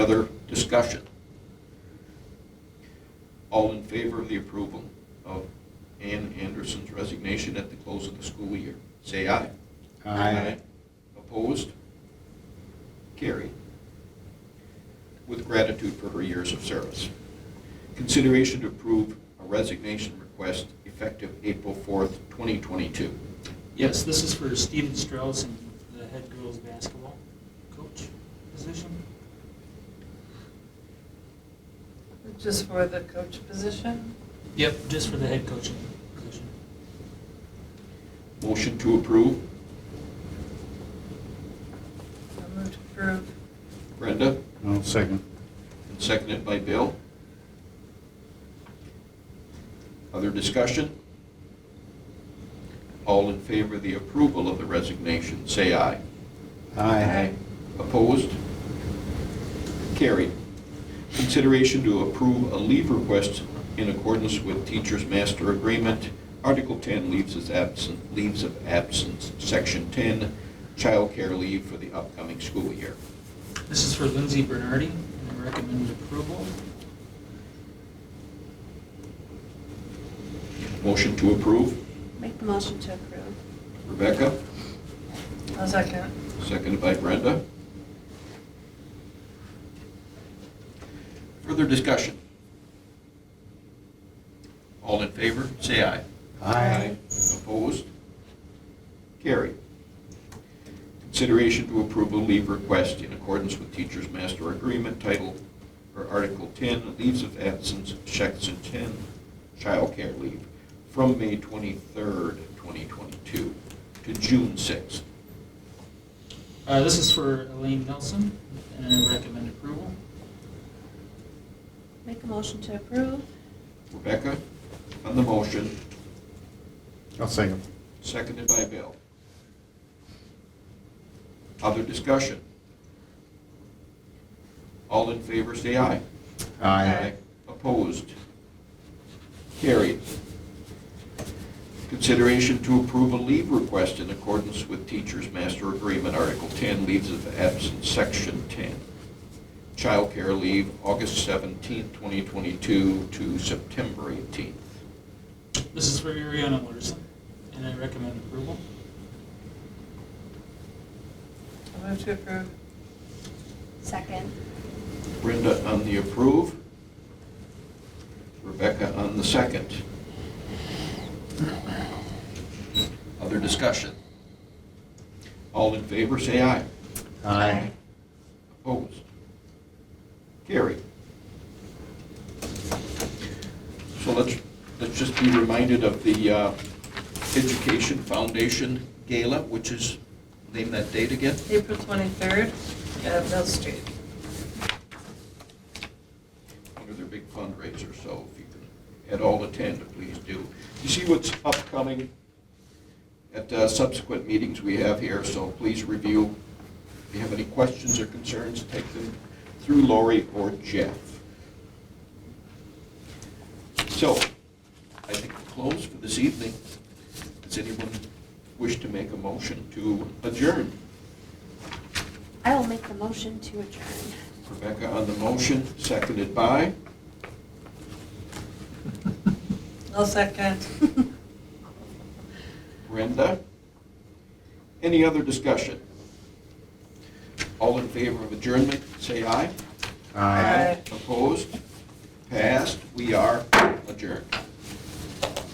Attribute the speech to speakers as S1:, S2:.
S1: other discussion? All in favor of the approval of Ann Anderson's resignation at the close of the school year, say aye. Opposed? Carried. With gratitude for her years of service. Consideration to approve a resignation request effective April 4th, 2022.
S2: Yes, this is for Steven Strauss and the head girls' basketball coach position.
S3: Just for the coach position?
S2: Yep, just for the head coaching position.
S1: Motion to approve,
S3: I move to approve.
S1: Brenda,
S4: I'll second.
S1: and seconded by Bill. Other discussion? All in favor of the approval of the resignation, say aye.
S3: Aye.
S1: Opposed? Carried. Consideration to approve a leave request in accordance with Teachers Master Agreement, Article 10, leaves of absence, leaves of absence, Section 10, childcare leave for the upcoming school year.
S2: This is for Lindsay Bernardi, and I recommend approval.
S1: Motion to approve,
S5: Make the motion to approve.
S1: Rebecca,
S3: I'll second.
S1: seconded by Brenda. Further discussion? All in favor, say aye.
S3: Aye.
S1: Opposed? Carried. Consideration to approve a leave request in accordance with Teachers Master Agreement Title, or Article 10, Leaves of Absence, Section 10, Childcare Leave, from May 23rd, 2022 to June 6th.
S2: Uh, This is for Elaine Nelson, and I recommend approval.
S5: Make a motion to approve.
S1: Rebecca, on the motion,
S4: I'll second.
S1: seconded by Bill. Other discussion? All in favor, say aye.
S3: Aye.
S1: Opposed? Carried. Consideration to approve a leave request in accordance with Teachers Master Agreement, Article 10, Leaves of Absence, Section 10. Childcare leave, August 17th, 2022 to September 18th.
S2: This is for Ariana Larson, and I recommend approval.
S3: I move to approve.
S5: Second.
S1: Brenda on the approve. Rebecca on the second. Other discussion? All in favor, say aye.
S4: Aye.
S1: Opposed? Carried. So let's, let's just be reminded of the uh, Education Foundation Gala, which is, name that date again?
S3: April 23rd at Mill Street.
S1: under their big fundraiser, so if you can at all attend, please do. You see what's upcoming at uh, subsequent meetings we have here, so please review. If you have any questions or concerns, take them through Lori or Jeff. So, I think we're closed for this evening. Does anyone wish to make a motion to adjourn?
S5: I will make the motion to adjourn.
S1: Rebecca on the motion, seconded by?
S3: I'll second.
S1: Brenda? Any other discussion? All in favor of adjournment, say aye.
S3: Aye.
S1: Opposed? Passed. We are adjourned.